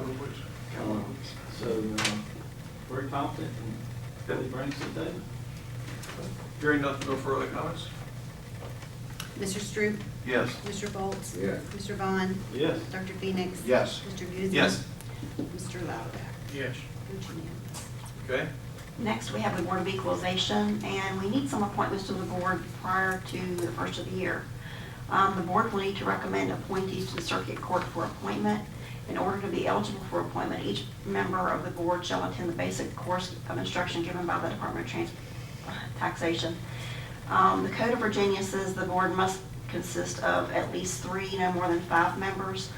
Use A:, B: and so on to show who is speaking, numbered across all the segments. A: Uh, So, uh, very confident in what he brings to the table.
B: Hearing nothing, no further comments?
C: Mr. Stroop?
B: Yes.
C: Mr. Bolts?
D: Yes.
C: Mr. Vaughn?
A: Yes.
C: Dr. Phoenix?
B: Yes.
C: Mr. Beauty?
B: Yes.
C: Mr. Lauback?
E: Yes.
C: It's unanimous.
B: Okay,
F: Next, we have the Board of Equalization, and we need some appointments to the board prior to the first of the year. Um, The board will need to recommend appointees to the circuit court for appointment. In order to be eligible for appointment, each member of the board shall attend the basic course of instruction given by the Department of Trans- Taxation. Um, The Code of Virginia says the board must consist of at least three, no more than five members,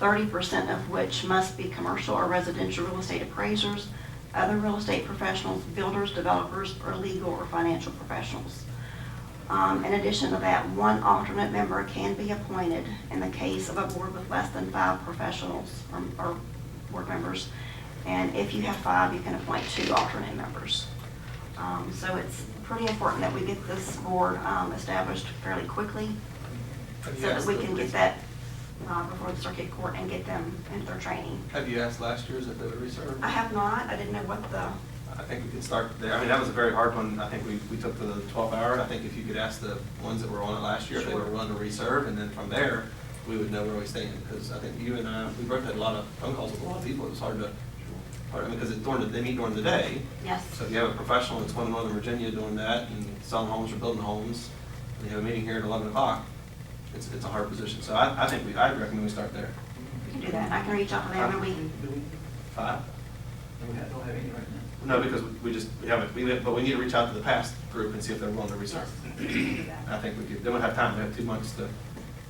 F: 30% of which must be commercial or residential real estate appraisers, other real estate professionals, builders, developers, or legal or financial professionals. Um, In addition to that, one alternate member can be appointed in the case of a board with less than five professionals or- or board members. And if you have five, you can appoint two alternate members. Um, So it's pretty important that we get this board um, established fairly quickly so that we can get that uh, before the circuit court and get them into their training.
B: have you asked last year's if they would reserve?
F: I have not, I didn't know what the,
B: I think we could start there. I mean, that was a very hard one. I think we, we took the twelve hour. I think if you could ask the ones that were on it last year, if they were
F: Sure.
B: willing to reserve, and then from there, we would know where we stand. Because I think you and I, we both had a lot of phone calls with a lot of people. It was hard to, hard, I mean, because it during, the- they meet during the day.
F: yes.
B: So if you have a professional that's going to Northern Virginia doing that and selling homes or building homes, and you have a meeting here at eleven o'clock, it's, it's a hard position. So I, I think we, I'd recommend we start there.
F: We can do that, and I can reach out to them, and we,
B: Five?
A: We don't have any right now.
B: No, because we- we just, we haven't, we, but we need to reach out to the past group and see if they're willing to reserve.
F: we can do that.
B: I think we could, they would have time, they have two months to,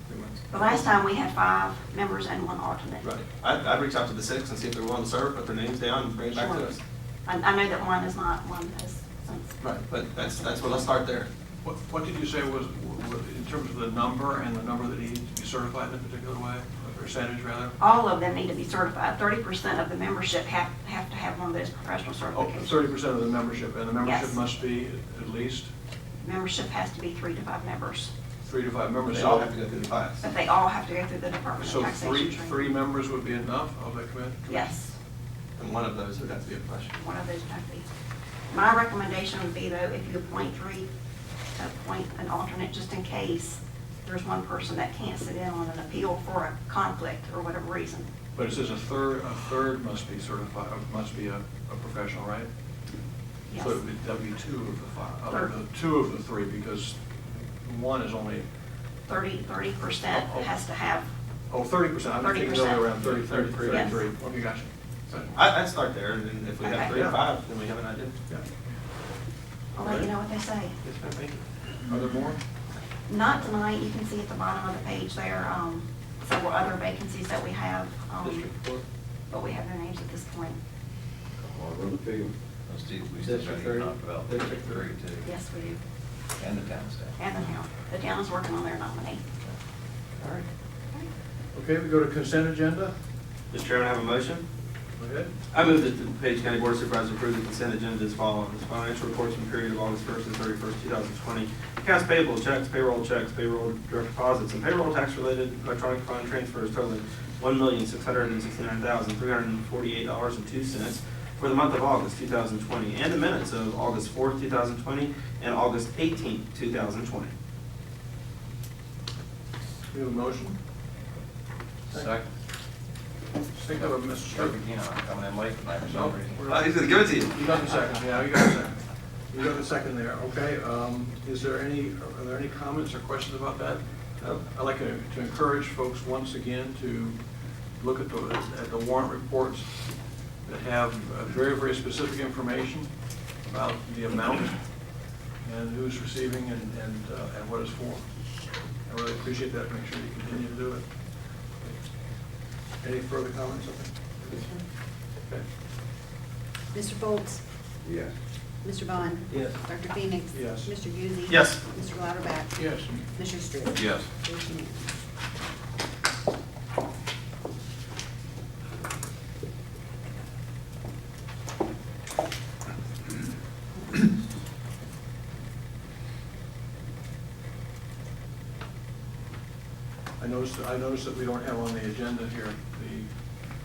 B: three months.
F: The last time, we had five members and one alternate.
B: Right, I'd, I'd reach out to the six and see if they're willing to serve, put their names down and bring it back to
F: Sure.
B: us.
F: I, I know that one is not, one has since.
B: Right, but that's, that's what, let's start there.
E: What, what did you say was, w- w- in terms of the number and the number that needs to be certified in a particular way, a percentage rather?
F: All of them need to be certified. Thirty percent of the membership have, have to have one of those professional
E: Oh,
F: certifications.
E: thirty percent of the membership, and the membership
F: Yes.
E: must be at least
F: Membership has to be three to five members,
E: three to five members.
B: They all have to go through the class.
F: but they all have to go through the Department of
E: So
F: Taxation.
E: three,
F: training.
E: three members would be enough of the commit?
F: Yes,
B: And one of those would have to be a professional.
F: one of those have to be. My recommendation would be though, if you appoint three, to appoint an alternate just in case there's one person that can't sit in on an appeal for a conflict or whatever reason.
E: But it says a third, a third must be certified, uh, must be a, a professional, right?
F: Yes.
E: So it would be that'd be two of the five,
F: Third.
E: of the two of the three, because one is only,
F: Thirty, thirty percent
E: Oh, oh.
F: has to have,
E: oh, thirty percent, I'm thinking the other way around, 30,
F: 30%.
E: 30, 33.
F: Yes.
E: Okay, gotcha.
B: So I, I'd start there, and then if we have
F: Okay.
B: three or five, then we have an idea.
E: Yeah.
F: I'll let oh, you know what they say.
B: Yes, ma'am, thank you.
E: Are there more?
F: Not tonight, you can see at the bottom of the page there, um, several other vacancies that we have, um,
B: District four.
F: but we have their names at this point.
D: Alderman Field.
G: Let's do, we still
A: District
G: trying to
A: three.
G: talk about
B: District
G: District Three too,
F: Yes, we do,
G: and the town staff.
F: and the town. The town is working on their nominee.
B: All right.
E: Okay, we go to consent agenda.
A: Mr. Chairman, I have a motion.
E: Go ahead.
B: I move that the Page County Board of Supervisors approve the consent agenda as follows. Financial reports from period of August 1st and 31st, 2020. Accounts payable, checks, payroll checks, payroll direct deposits, and payroll tax-related electronic fund transfers totaling $1,669,348.02 for the month of August 2020, and the minutes of August 4th, 2020, and August 18th, 2020.
E: We have a motion.
G: Second,
E: Think of it, Mr.
G: Kirk
E: Strickland.
G: again, I'm coming in late tonight for
E: No,
G: some reason.
E: we're-
B: He's going to give it to you.
E: You got the second, yeah, you got the second. You got the second there, okay. um, Is there any, are there any comments or questions about that? Uh, I'd like to to encourage folks once again to look at the, at the warrant reports that have uh, very, very specific information about the amount and who's receiving and, and uh, and what it's for. I really appreciate that, make sure you continue to do it. Any further comments? Okay.
C: Mr. Foltz,
D: Yes.
C: Mr. Vaughn.
B: Yes.
C: Dr. Phoenix.
E: Yes.
C: Mr. Beauty.
B: Yes.
C: Mr. Lauterbach.
E: Yes.
C: Mr. Stroop.
G: Yes.
C: It's unanimous.
E: I noticed, I noticed that we don't have on the agenda here